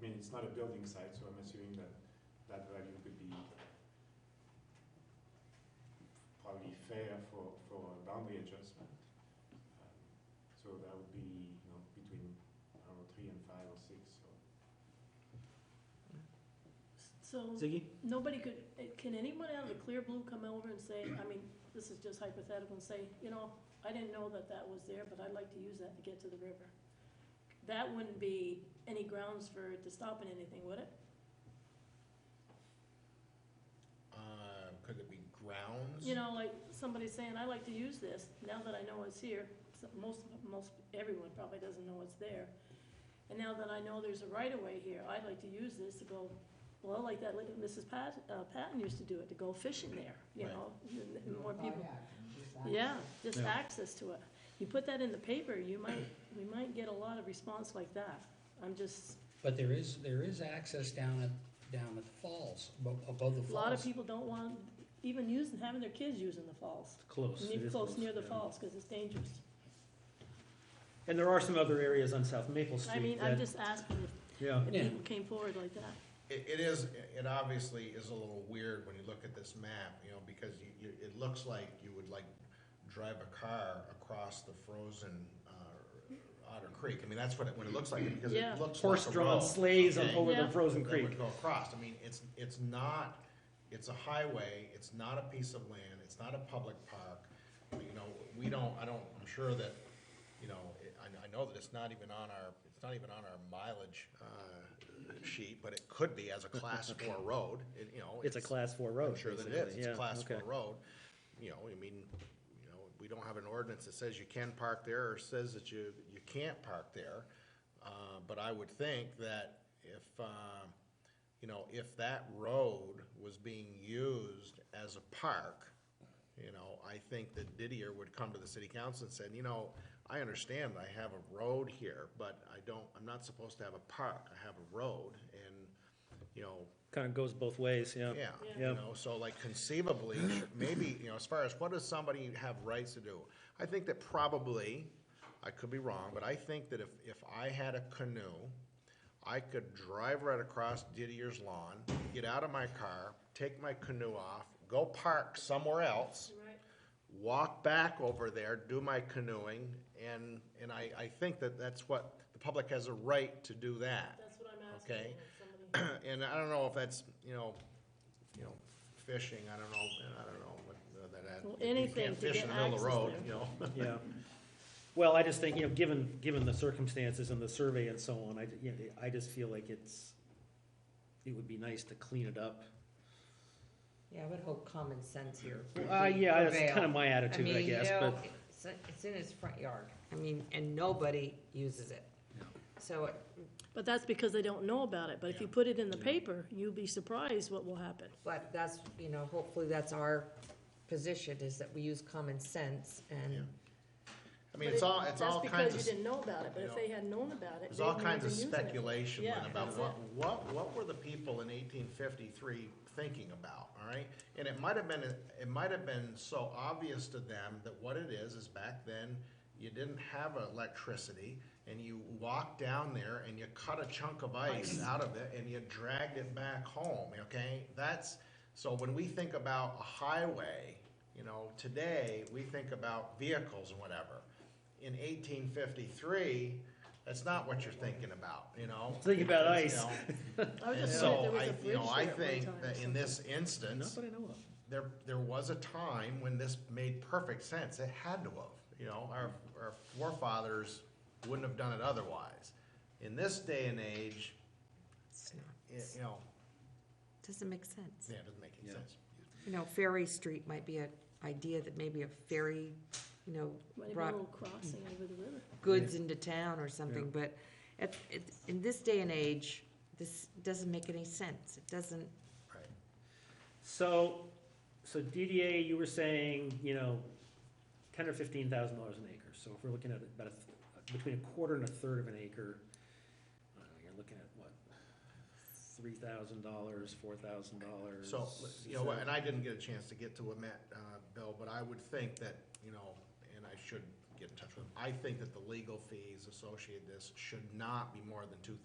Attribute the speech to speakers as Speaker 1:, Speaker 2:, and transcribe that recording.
Speaker 1: mean, it's not a building site, so I'm assuming that that value could be probably fair for, for a boundary adjustment. Um, So that would be, you know, between, I don't know, three and five or six, so.
Speaker 2: So,
Speaker 3: Ziggy?
Speaker 2: nobody could, eh, can anyone out of the clear blue come over and say, I mean, this is just hypothetical, and say, you know, I didn't know that that was there, but I'd like to use that to get to the river? That wouldn't be any grounds for it to stopping anything, would it?
Speaker 4: Um, could it be grounds?
Speaker 2: You know, like, somebody saying, I like to use this, now that I know it's here, so- most, most, everyone probably doesn't know it's there. And now that I know there's a right-of-way here, I'd like to use this to go, well, like that, little Mrs. Pat, uh, Patton used to do it, to go fishing there, you
Speaker 4: Right.
Speaker 2: know? and- and More people,
Speaker 5: Kayak, just that.
Speaker 2: yeah, just
Speaker 3: Yeah.
Speaker 2: access to it. You put that in the paper, you might, we might get a lot of response like that. I'm just,
Speaker 6: But there is, there is access down at, down at the falls, abo- above the falls.
Speaker 2: a lot of people don't want, even using, having their kids using the falls.
Speaker 3: Close. it
Speaker 2: Near,
Speaker 3: is
Speaker 2: close near the
Speaker 3: yeah.
Speaker 2: falls, because it's dangerous.
Speaker 3: And there are some other areas on South Maple Street.
Speaker 2: I mean, I'm
Speaker 3: that-
Speaker 2: just asking
Speaker 3: Yeah,
Speaker 2: if, if
Speaker 6: Yeah.
Speaker 2: people came forward like that.
Speaker 4: It, it is, it obviously is a little weird when you look at this map, you know, because you, you, it looks like you would like drive a car across the frozen, uh, Otter Creek. I mean, that's what it, what it looks like, because
Speaker 2: Yeah.
Speaker 4: it looks like a
Speaker 3: horse-drawn
Speaker 4: road,
Speaker 3: sleighs on
Speaker 4: okay?
Speaker 3: over the
Speaker 2: Yeah.
Speaker 3: frozen
Speaker 4: That
Speaker 3: creek.
Speaker 4: would go across. I mean, it's, it's not, it's a highway, it's not a piece of land, it's not a public park. You know, we don't, I don't, I'm sure that, you know, it- I, I know that it's not even on our, it's not even on our mileage, uh, sheet, but it could be as a class four road, it, you know.
Speaker 3: It's a class four road.
Speaker 4: I'm sure that it
Speaker 3: basically.
Speaker 4: is, it's a
Speaker 3: Yeah,
Speaker 4: class
Speaker 3: okay.
Speaker 4: four road. You know, I mean, you know, we don't have an ordinance that says you can park there or says that you, you can't park there. Uh, but I would think that if, uh, you know, if that road was being used as a park, you know, I think that Didier would come to the city council and said, you know, I understand I have a road here, but I don't, I'm not supposed to have a park, I have a road, and, you know,
Speaker 3: Kind of goes both ways, yeah.
Speaker 4: yeah,
Speaker 2: Yeah.
Speaker 4: you know, so like conceivably, maybe, you know, as far as what does somebody have rights to do? I think that probably, I could be wrong, but I think that if, if I had a canoe, I could drive right across Didier's lawn, get out of my car, take my canoe off, go park somewhere else,
Speaker 2: Right.
Speaker 4: walk back over there, do my canoeing, and, and I, I think that that's what, the public has a right to do that.
Speaker 2: That's what I'm
Speaker 4: asking, Okay.
Speaker 2: Somebody.
Speaker 4: and I don't know if that's, you know, you know, fishing, I don't know, I don't know what that. that-
Speaker 2: Well,
Speaker 4: you can't
Speaker 2: anything to
Speaker 4: fish
Speaker 2: get
Speaker 4: in the middle of the
Speaker 2: access
Speaker 4: road,
Speaker 2: there.
Speaker 4: You know,
Speaker 3: Yeah. Well, I just think, you know, given, given the circumstances and the survey and so on, I, ju- you know, I just feel like it's, it would be nice to clean it up.
Speaker 5: Yeah, I would hope common sense here. would
Speaker 3: Uh, yeah, that's
Speaker 5: prevail.
Speaker 3: kind of my attitude, I
Speaker 5: mean, you
Speaker 3: guess,
Speaker 5: know,
Speaker 3: but,
Speaker 5: It's, it's in his front yard, I mean, and nobody uses it. So it-
Speaker 2: But that's because they don't know about it. But if you put it in the paper, you'll be surprised what will happen.
Speaker 5: But that's, you know, hopefully that's our position, is that we use common sense and,
Speaker 4: I mean, it's all, it's all
Speaker 2: That's
Speaker 4: kinds
Speaker 2: because
Speaker 4: of,
Speaker 2: you didn't know about it. But if
Speaker 4: you
Speaker 2: they had known about it,
Speaker 4: there's all
Speaker 2: they wouldn't
Speaker 4: kinds of
Speaker 2: have been using it.
Speaker 4: speculation Lynn,
Speaker 2: Yeah,
Speaker 4: about
Speaker 2: that's
Speaker 4: what,
Speaker 2: it.
Speaker 4: what, what were the people in eighteen fifty-three thinking about, all right? And it might have been, it might have been so obvious to them that what it is, is back then, you didn't have electricity, and you walked down there and you cut a chunk of ice out of it and you dragged it back home, okay? That's, so when we think about a highway, you know, today, we think about vehicles and whatever. In eighteen fifty-three, that's not what you're thinking about, you know?
Speaker 3: Think about
Speaker 4: It's, you know,
Speaker 2: I was just saying, there
Speaker 4: So
Speaker 2: was
Speaker 4: I,
Speaker 2: a
Speaker 4: you
Speaker 2: bridge
Speaker 4: know, I
Speaker 2: there at
Speaker 4: think
Speaker 2: one
Speaker 4: that in
Speaker 2: time.
Speaker 4: this instance,
Speaker 3: not that I know of.
Speaker 4: there, there was a time when this made perfect sense. It had to have, you know, our, our forefathers wouldn't have done it otherwise. In this day and age,
Speaker 5: it's not,
Speaker 4: it, you know,
Speaker 5: doesn't make sense.
Speaker 4: yeah, it doesn't make any
Speaker 3: Yeah.
Speaker 4: sense.
Speaker 5: You know, Ferry Street might be an idea that maybe a ferry, you know,
Speaker 2: Might have been a
Speaker 5: brought
Speaker 2: little crossing over the river.
Speaker 5: goods into town or something, but at, it, in this day and age, this doesn't make any sense. It doesn't,
Speaker 4: Right.
Speaker 3: So, so DDA, you were saying, you know, ten or fifteen thousand dollars an acre, so if we're looking at about a, th- between a quarter and a third of an acre, I don't know, you're looking at what, three thousand dollars, four thousand dollars?
Speaker 4: So, you know, and I didn't get a chance to get to what Matt, uh, Bill, but I would think that, you know, and I should get in touch with him. I think that the legal fees associated with this should not be more than two thousand